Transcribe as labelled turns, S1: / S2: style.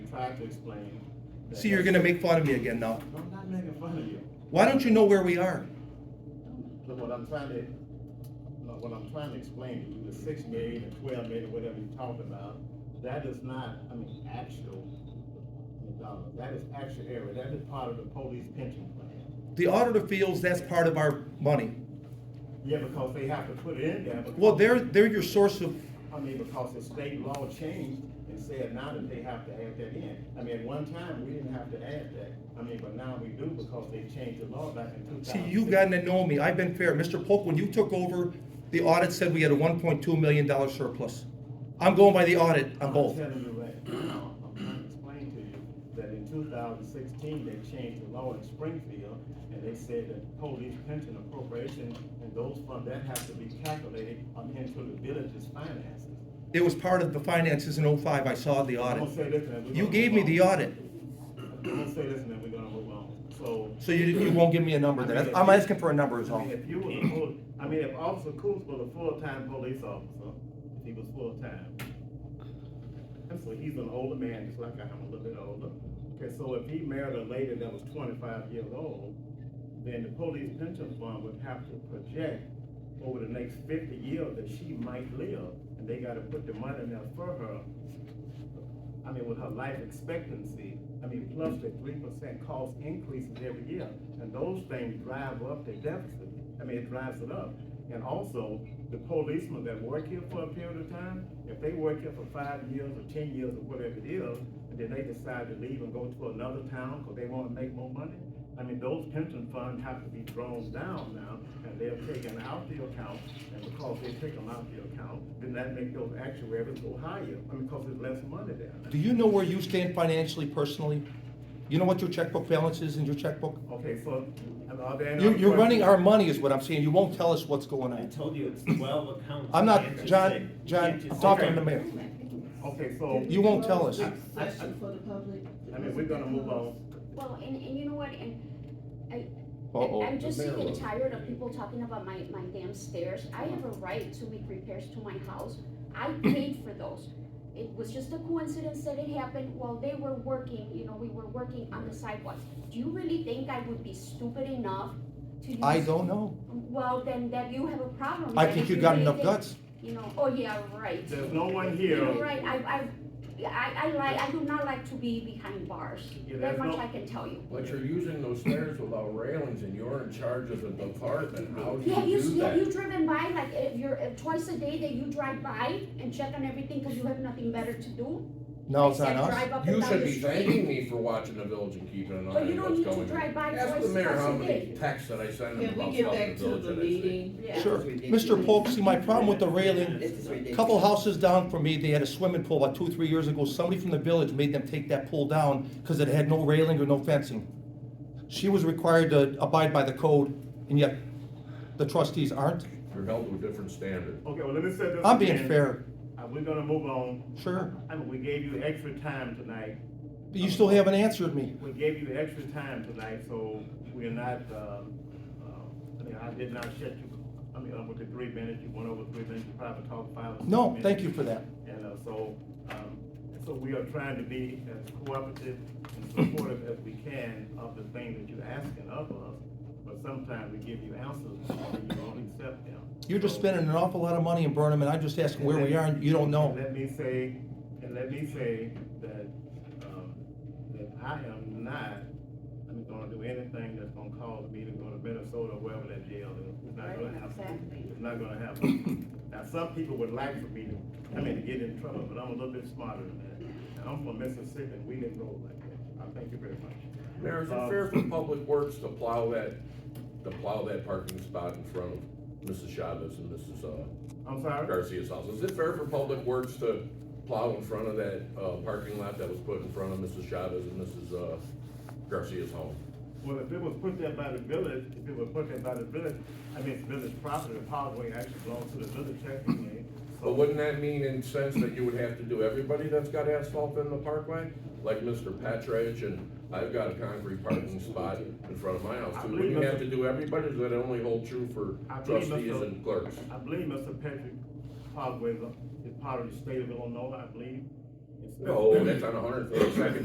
S1: tried to explain. that-
S2: See, you're gonna make fun of me again now.
S1: I'm not making fun of you.
S2: Why don't you know where we are?
S1: But what I'm trying to, no, what I'm trying to explain to you, the six million, the twelve million, whatever you talk about, that is not, I mean, actual dollars. That is actual area. That is part of the police pension plan.
S2: The auditor feels that's part of our money.
S1: Yeah, because they have to put it in there. because-
S2: Well, they're, they're your source of,
S1: I mean, because the state law changed and said now that they have to add that in. I mean, at one time, we didn't have to add that. I mean, but now we do because they changed the law back in two
S2: see,
S1: thousand.
S2: you've gotten to know me, I've been fair. Mr. Polk, when you took over, the audit said we had a one point two million dollar surplus. I'm going by the audit on both.
S1: I'm telling you right now, I'm trying to explain to you that in two thousand sixteen, they changed the law in Springfield, and they said that police pension appropriation and those funds, that have to be calculated um, into the village's finances.
S2: It was part of the finances in oh-five, I saw the
S1: I'm
S2: audit.
S1: gonna say this, and we're
S2: You
S1: gonna
S2: gave
S1: move
S2: me the
S1: on.
S2: audit,
S1: I'm gonna say this, and then we're gonna move on. So,
S2: so you, you won't give me a number then. I'm asking for a number is
S1: I
S2: all.
S1: mean, if you was a full, I mean, if Officer Coots was a full-time police officer, if he was full-time, and so he's an older man, just like I am, a little bit older. Okay, so if he married a lady that was twenty-five years old, then the police pension fund would have to project over the next fifty years that she might live, and they gotta put the money in there for her. I mean, with her life expectancy, I mean, plus the three percent cost increases every year, and those things drive up the deficit, I mean, it drives it up. And also, the policemen that work here for a period of time, if they work here for five years or ten years or whatever it is, and then they decide to leave and go to another town because they wanna make more money, I mean, those pension funds have to be drawn down now, and they're taken out the account, and because they take them out the account, then that makes those actuaries go higher, I mean, because there's less money there. now.
S2: Do you know where you stand financially personally? You know what your checkbook balance is in your checkbook?
S1: Okay, so, and are there any?
S2: You're,
S1: other
S2: you're running our
S1: questions?
S2: money is what I'm saying. You won't tell us what's going
S3: I
S2: on.
S3: told you it's twelve accounts.
S2: I'm not,
S3: You can't just say-
S2: John,
S3: you
S2: John,
S3: can't
S2: I'm
S3: just say-
S2: talking to the mayor.
S1: Okay, so,
S2: Oh, You won't tell us.
S4: Closed
S1: I- I-
S4: Session for the public.
S1: I mean, we're gonna move on.
S5: Well, and, and you know what, and I-
S2: Uh-oh.
S5: I'm just sick and tired of people talking about my, my damn stairs. I have a right to make repairs to my house. I paid for those. It was just a coincidence that it happened while they were working, you know, we were working on the sidewalks. Do you really think I would be stupid enough to use?
S2: I don't know.
S5: Well, then, then you have a problem.
S2: I
S5: then,
S2: think
S5: if
S2: you got
S5: really
S2: enough
S5: think-
S2: guts.
S5: You know, oh yeah, right.
S1: there's no one here,
S5: You're right, I, I, I, I like, I do not like to be behind bars.
S1: Yeah,
S5: That
S1: there's
S5: much
S1: no-
S5: I can tell you.
S6: But you're using those stairs without railings and you're in charge of the department, how do
S5: Have
S6: you
S5: you,
S6: do
S5: have you
S6: that?
S5: driven by, like, if you're, if twice a day that you drive by and check on everything because you have nothing better to do?
S2: No, it's on
S5: Except
S2: us.
S5: drive up and
S6: You
S5: down
S6: should
S5: the
S6: be
S5: street?
S6: thanking me for watching the village and keeping an eye
S5: But you
S6: on
S5: don't
S6: what's
S5: need to
S6: going
S5: drive
S6: on.
S5: by
S6: Ask the
S5: twice,
S6: mayor how
S5: twice a
S6: many
S5: day.
S6: texts that I send him
S4: Can
S6: about
S4: we get
S6: stuff
S4: back
S6: in the
S4: to
S6: village
S4: the
S6: that I see.
S4: meeting?
S2: Sure. Mr. Polk, see, my problem with the railing,
S3: This is ridiculous.
S2: couple houses down from me, they had a swimming pool about two, three years ago. Somebody from the village made them take that pool down because it had no railing or no fencing. She was required to abide by the code, and yet the trustees aren't.
S6: You're held to a different standard.
S1: okay, well, let me say this.
S2: I'm being
S1: again.
S2: fair,
S1: Uh, we're gonna move on,
S2: sure.
S1: I mean, we gave you extra time tonight,
S2: But you still haven't answered me.
S1: we gave you extra time tonight, so we're not, um, uh, I mean, I did not shut you, I mean, uh, with the three minutes, you went over three minutes, you probably talked five or six minutes.
S2: No, thank you for that.
S1: And, uh, so, um, so we are trying to be as cooperative and supportive as we can of the thing that you're asking of us, but sometimes we give you answers and you don't accept them.
S2: You're just
S1: So-
S2: spending an awful lot of money in Burnham, and I'm just asking where we are, and you don't know.
S1: and Let me say, and let me say that, um, that I am not, I'm gonna do anything that's gonna cause me to go to Minnesota, wherever that jail is. It's not gonna
S5: Right,
S1: happen.
S5: exactly.
S1: It's not gonna happen. Now, some people would like for me to, I mean, to get in trouble, but I'm a little bit smarter than that. And I'm from Mississippi, and we didn't roll like that. I thank you very much.
S6: Mayor, is it
S1: Um,
S6: fair for Public Works to plow that, to plow that parking spot in front of Mrs. Chavez and Mrs. uh,
S1: I'm sorry?
S6: Garcia's house? Is it fair for Public Works to plow in front of that, uh, parking lot that was put in front of Mrs. Chavez and Mrs. uh, Garcia's home?
S1: Well, if it was put there by the village, if it was put there by the village, I mean, it's village property, the highway actually belongs to the village technically. so-
S6: But wouldn't that mean in sense that you would have to do everybody that's got asphalt in the parkway? Like Mr. Patridge and I've got a concrete parking spot in front of my house
S1: I
S6: too.
S1: believe
S6: Wouldn't you
S1: Mr.
S6: have to do everybody? Does that only hold true for
S1: I believe
S6: trustees
S1: Mr.
S6: and clerks?
S1: I believe Mr. Patrick Pogwizza is part of the state of Illinois, I believe. It's-
S6: Oh, No, that's on 132nd